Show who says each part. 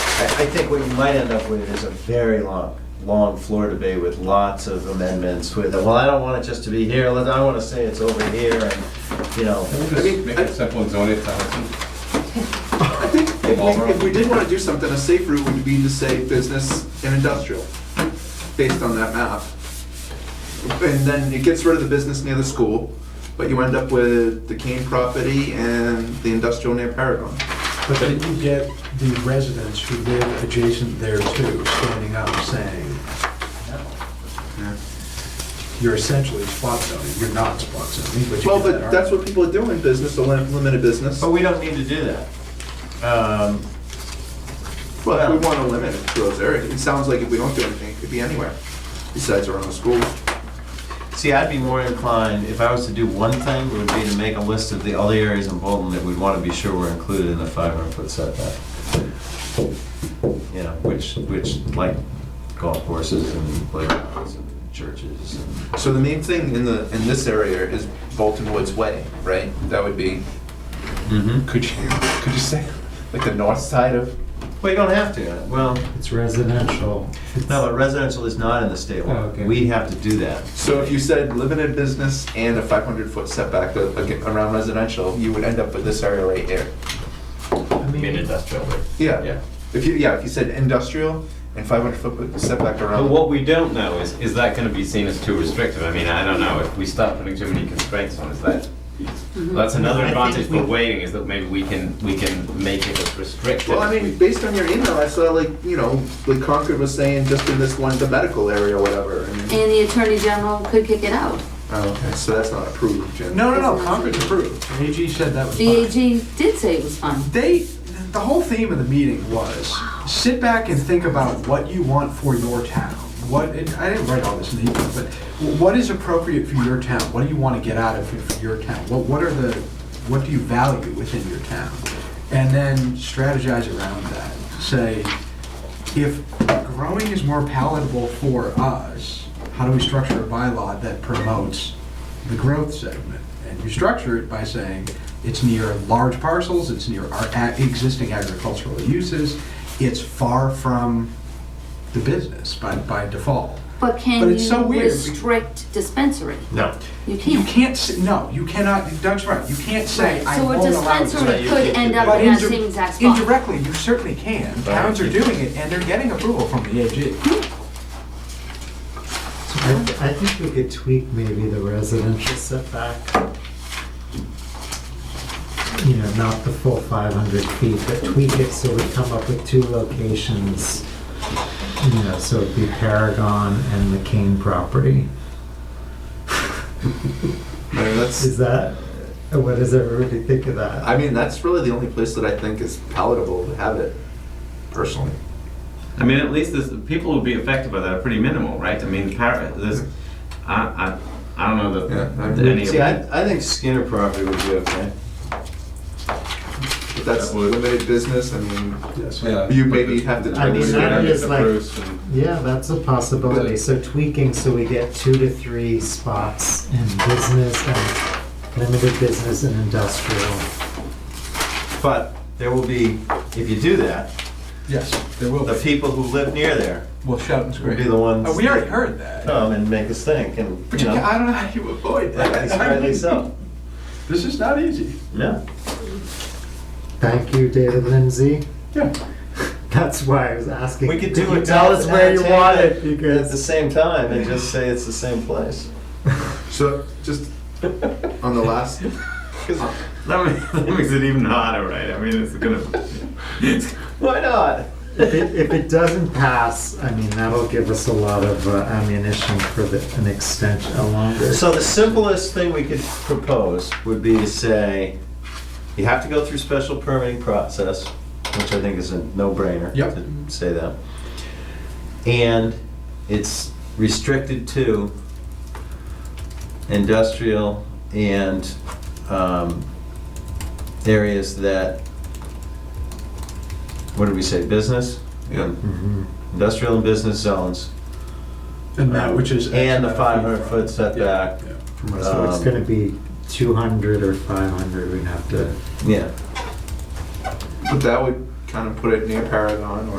Speaker 1: I, I think what you might end up with is a very long, long floor debate with lots of amendments with, well, I don't want it just to be here, let- I wanna say it's over here, and, you know.
Speaker 2: Can we just make it simple and zone it to Hudson?
Speaker 3: I think if we, if we did wanna do something, a safe route would be to say business and industrial, based on that map. And then it gets rid of the business near the school, but you end up with the Kane property and the industrial near Paragon.
Speaker 4: But then you get the residents who live adjacent there too, standing up saying, you're essentially spot zoning, you're not spot zoning, but you
Speaker 3: Well,
Speaker 4: get that
Speaker 3: but that's what people are doing, business, a lim- limited business.
Speaker 1: But we don't need to do that. Um,
Speaker 3: Well, we wanna limit it to those areas. It sounds like if we don't do anything, it could be anywhere, besides around the school.
Speaker 1: See, I'd be more inclined, if I was to do one thing, would be to make a list of the other arears in Bolton that we'd want to be sure were included in the 500-foot setback. You know, which, which, like golf courses and playgrounds and churches and,
Speaker 3: So the main thing in the, in this area is Bolton Woods Way, right? That would be Could you, could you say, like the north side of?
Speaker 1: well, you don't have to, well,
Speaker 5: It's residential.
Speaker 1: no, but residential is not in the state
Speaker 5: Oh,
Speaker 1: law.
Speaker 5: okay.
Speaker 1: We have to do that.
Speaker 3: So if you said limited business and a five hundred foot setback a- a- around residential, you would end up with this area right here.
Speaker 4: I mean,
Speaker 5: industrial.
Speaker 3: Yeah,
Speaker 6: Yeah.
Speaker 3: if you, yeah, if you said industrial and five hundred foot setback
Speaker 6: But
Speaker 3: around.
Speaker 6: what we don't know is, is that gonna be seen as too restrictive? I mean, I don't know, if we start putting too many constraints on, is that, that's another
Speaker 5: Mm-hmm. I think
Speaker 6: advantage for
Speaker 5: we-
Speaker 6: waiting, is that maybe we can, we can make it as restrictive.
Speaker 3: Well, I mean, based on your email, I saw like, you know, like Concord was saying, just in this one, the medical area or whatever. and-
Speaker 7: And the Attorney General could kick it out.
Speaker 3: Oh, okay, so that's not approved, Jen.
Speaker 2: No, no, no, Congress approved.
Speaker 4: AG said that was
Speaker 7: The
Speaker 4: fine.
Speaker 7: AG did say it was fine.
Speaker 4: They, the whole theme of the meeting was, sit back and think about what you want for your town. What, and I didn't write all this in the email, but what is appropriate for your town? What do you want to get out of it for your town? What, what are the, what do you value within your town? And then strategize around that. Say, if growing is more palatable for us, how do we structure a bylaw that promotes the growth segment? And you structure it by saying it's near large parcels, it's near our a- existing agricultural uses, it's far from the business by, by default.
Speaker 7: But
Speaker 4: But
Speaker 7: can
Speaker 4: it's so
Speaker 7: you
Speaker 4: weird.
Speaker 7: restrict dispensary?
Speaker 1: No.
Speaker 7: You can't.
Speaker 4: You can't, s- no, you cannot, Doug's right, you can't say,
Speaker 7: Right,
Speaker 4: I won't allow.
Speaker 7: So a
Speaker 4: this."
Speaker 1: Right,
Speaker 7: dispensary
Speaker 1: you
Speaker 7: could
Speaker 1: can't
Speaker 7: end
Speaker 1: do
Speaker 7: up
Speaker 4: But
Speaker 7: in that
Speaker 4: indir-
Speaker 7: same exact spot.
Speaker 4: Indirectly, you certainly can. Towns are doing it, and they're getting approval from the AG.
Speaker 5: I think we could tweak maybe the residential setback. You know, not the full 500 feet, but tweak it so we come up with two locations. You know, so it'd be Paragon and the Kane property.
Speaker 3: I mean, that's,
Speaker 5: Is that, what does everybody think of that?
Speaker 3: I mean, that's really the only place that I think is palatable to have it, personally.
Speaker 6: I mean, at least this, people would be affected by that are pretty minimal, right? I mean, par- this, I, I, I don't know
Speaker 3: Yeah, I
Speaker 6: that, that
Speaker 3: agree.
Speaker 6: any of
Speaker 1: See,
Speaker 6: it.
Speaker 1: I, I think Skinner property would be okay.
Speaker 3: If that's
Speaker 2: That would-
Speaker 3: limited business, I mean,
Speaker 4: Yes.
Speaker 2: Yeah.
Speaker 3: you maybe have to.
Speaker 5: I mean,
Speaker 3: tweak it.
Speaker 5: that is like-
Speaker 2: Approved and-
Speaker 5: Yeah, that's a possibility. So tweaking, so we get two to three spots in business and limited business and industrial.
Speaker 1: But there will be, if you do that,
Speaker 4: Yes, there will
Speaker 1: the
Speaker 4: be.
Speaker 1: people who live near there
Speaker 4: Well, shout and
Speaker 1: will be
Speaker 4: scream.
Speaker 1: the ones.
Speaker 4: Uh, We already heard that.
Speaker 1: come and make us think and,
Speaker 4: But
Speaker 1: you
Speaker 4: you, ca-
Speaker 1: know,
Speaker 4: I don't know how you avoid
Speaker 1: rightly-
Speaker 4: that.
Speaker 1: rightly so.
Speaker 4: This is not easy.
Speaker 1: No.
Speaker 5: Thank you, David Lindsay.
Speaker 4: Yeah.
Speaker 5: That's why I was asking.
Speaker 1: We could do
Speaker 5: you
Speaker 1: it
Speaker 5: Tell us
Speaker 1: at-
Speaker 5: where you
Speaker 1: at-
Speaker 5: want it
Speaker 1: At the
Speaker 5: because
Speaker 1: same time and just say it's the same place.
Speaker 3: So, just on the last,
Speaker 6: That makes, that makes it even harder, right? I mean, it's gonna, it's
Speaker 1: Why not?
Speaker 5: if it, if it doesn't pass, I mean, that'll give us a lot of uh, ammunition for the, an extension, a longer.
Speaker 1: So the simplest thing we could propose would be to say, you have to go through special permitting process, which I think is a no-brainer
Speaker 4: Yep.
Speaker 1: to say that. And it's restricted to industrial and um, areas that, what did we say, business?
Speaker 3: Yeah.
Speaker 4: Mm-hmm.
Speaker 5: Mhm.
Speaker 1: Industrial and business zones.
Speaker 4: And that, which is.
Speaker 1: And the
Speaker 4: X amount of feet
Speaker 1: 500-foot setback.
Speaker 4: Yeah, yeah.
Speaker 5: So it's
Speaker 1: Um,
Speaker 5: going to be 200 or 500. We'd have to.
Speaker 1: Yeah.
Speaker 3: but that would kind of put it near Paragon or